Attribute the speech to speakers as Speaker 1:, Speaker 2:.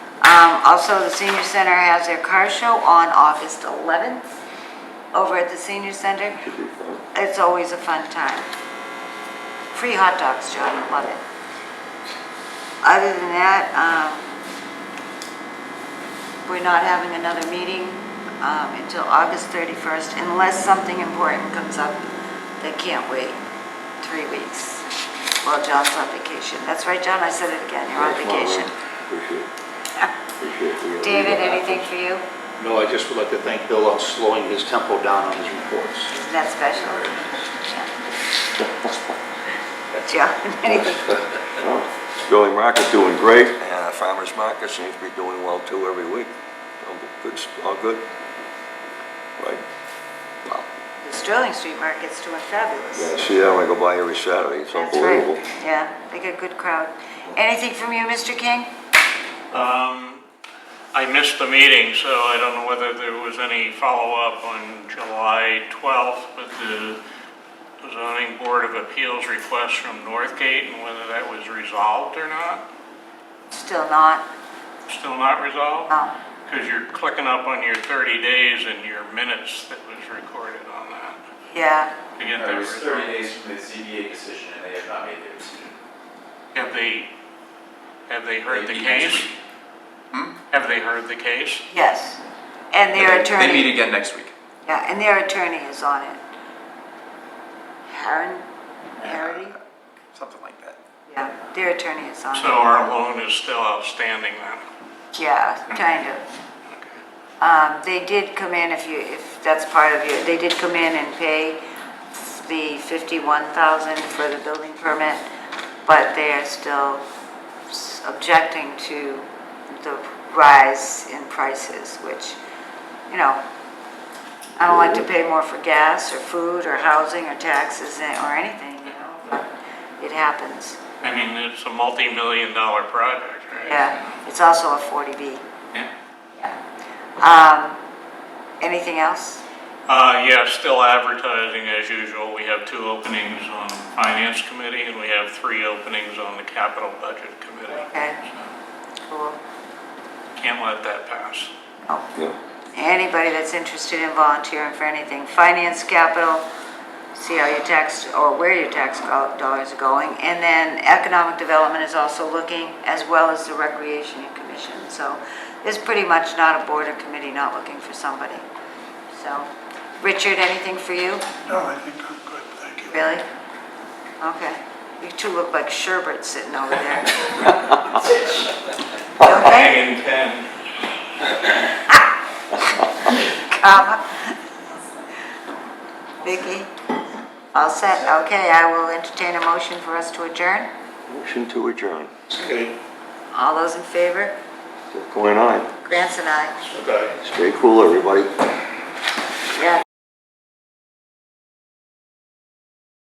Speaker 1: Um, Also, the senior center has their car show on August 11th over at the senior center. It's always a fun time. Free hot dogs, John, I love it. Other than that, um, we're not having another meeting um, until August 31st unless something important comes up that can't wait three weeks while John's on vacation. That's right, John, I said it again, you're on vacation.
Speaker 2: Appreciate it. Appreciate it.
Speaker 1: David, anything for you?
Speaker 3: No, I just would like to thank Bill on slowing his tempo down on his reports.
Speaker 1: Isn't that special? John, anything?
Speaker 2: Building market doing great, and farmer's market seems to be doing well too every week. All good, all good. Right? Wow.
Speaker 1: The Sterling Street Market's doing
Speaker 2: Yeah,
Speaker 1: fabulous.
Speaker 2: see that when I go by every Saturday, it's
Speaker 1: That's right.
Speaker 2: unbelievable.
Speaker 1: Yeah, they get a good crowd. Anything from you, Mr. King?
Speaker 4: Um, I missed the meeting, so I don't know whether there was any follow-up on July 12th with the zoning board of appeals request from Northgate and whether that was resolved or not.
Speaker 1: Still not? Um,
Speaker 4: Still not resolved?
Speaker 1: No.
Speaker 4: Because you're clicking up on your 30 days and your minutes that was recorded on that
Speaker 1: Yeah,
Speaker 4: to get that
Speaker 5: It was
Speaker 4: resolved.
Speaker 5: 30 days from the ZBA decision, and they have not made their decision.
Speaker 4: Have they, have they heard the
Speaker 5: They meet next
Speaker 4: case?
Speaker 5: week.
Speaker 4: Have they heard the case?
Speaker 1: yes. And their attorney.
Speaker 5: They meet again next week.
Speaker 1: Yeah, and their attorney is on it. Harren, Harity?
Speaker 5: Something like that.
Speaker 1: Yeah, their attorney is on it.
Speaker 4: So our loan is still outstanding then?
Speaker 1: Yeah, kind of. Um, they did come in, if you, if that's part of your, they did come in and pay the fifty-one thousand for the building permit, but they are still s- objecting to the rise in prices, which, you know, I don't like to pay more for gas or food or housing or taxes or anything, you know, but it happens.
Speaker 4: I mean, it's a multi-million dollar project, right?
Speaker 1: Yeah, it's also a forty B.
Speaker 4: Yeah.
Speaker 1: Um, anything else?
Speaker 4: Uh, yeah, still advertising as usual. We have two openings on Finance Committee and we have three openings on the Capital Budget Committee.
Speaker 1: Okay. Cool.
Speaker 4: Can't let that pass.
Speaker 2: Yeah.
Speaker 1: Anybody that's interested in volunteering for anything, finance, capital, see how your tax, or where your tax go- dollars are going. And then economic development is also looking, as well as the recreation commission. So there's pretty much not a board or committee not looking for somebody. So, Richard, anything for you?
Speaker 6: No, I think I'm good, thank you.
Speaker 1: Really? Okay. You two look like sherbet sitting over there. Don't they?
Speaker 4: Hanging ten.
Speaker 1: Comma. Vicky? All set? Okay, I will entertain a motion for us to adjourn.
Speaker 2: Motion to adjourn.
Speaker 3: Okay.
Speaker 1: All those in favor?
Speaker 2: Going on.
Speaker 1: Grants and I.
Speaker 3: Okay.
Speaker 2: Stay cool, everybody.